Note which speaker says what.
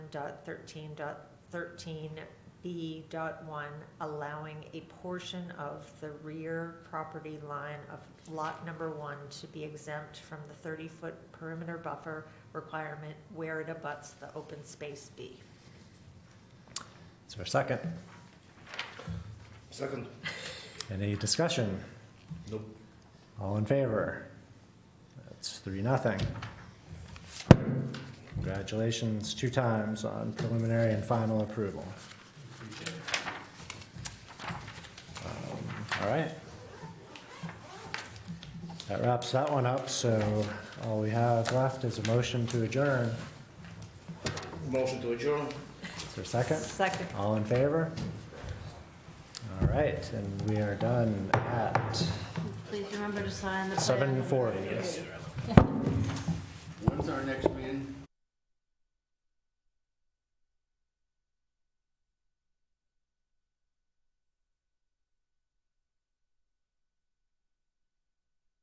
Speaker 1: dot thirteen dot thirteen B dot one, allowing a portion of the rear property line of lot number one to be exempt from the thirty-foot perimeter buffer requirement where it abuts the open space B.
Speaker 2: Is there a second?
Speaker 3: Second.
Speaker 2: Any discussion?
Speaker 3: Nope.
Speaker 2: All in favor? That's three, nothing. Congratulations two times on preliminary and final approval. Um, All right. That wraps that one up, so all we have left is a motion to adjourn.
Speaker 3: Motion to adjourn.
Speaker 2: Is there a second?
Speaker 1: Second.
Speaker 2: All in favor? All right, and we are done at
Speaker 4: Please remember to sign the plan.
Speaker 2: seven forty.
Speaker 3: When's our next meeting?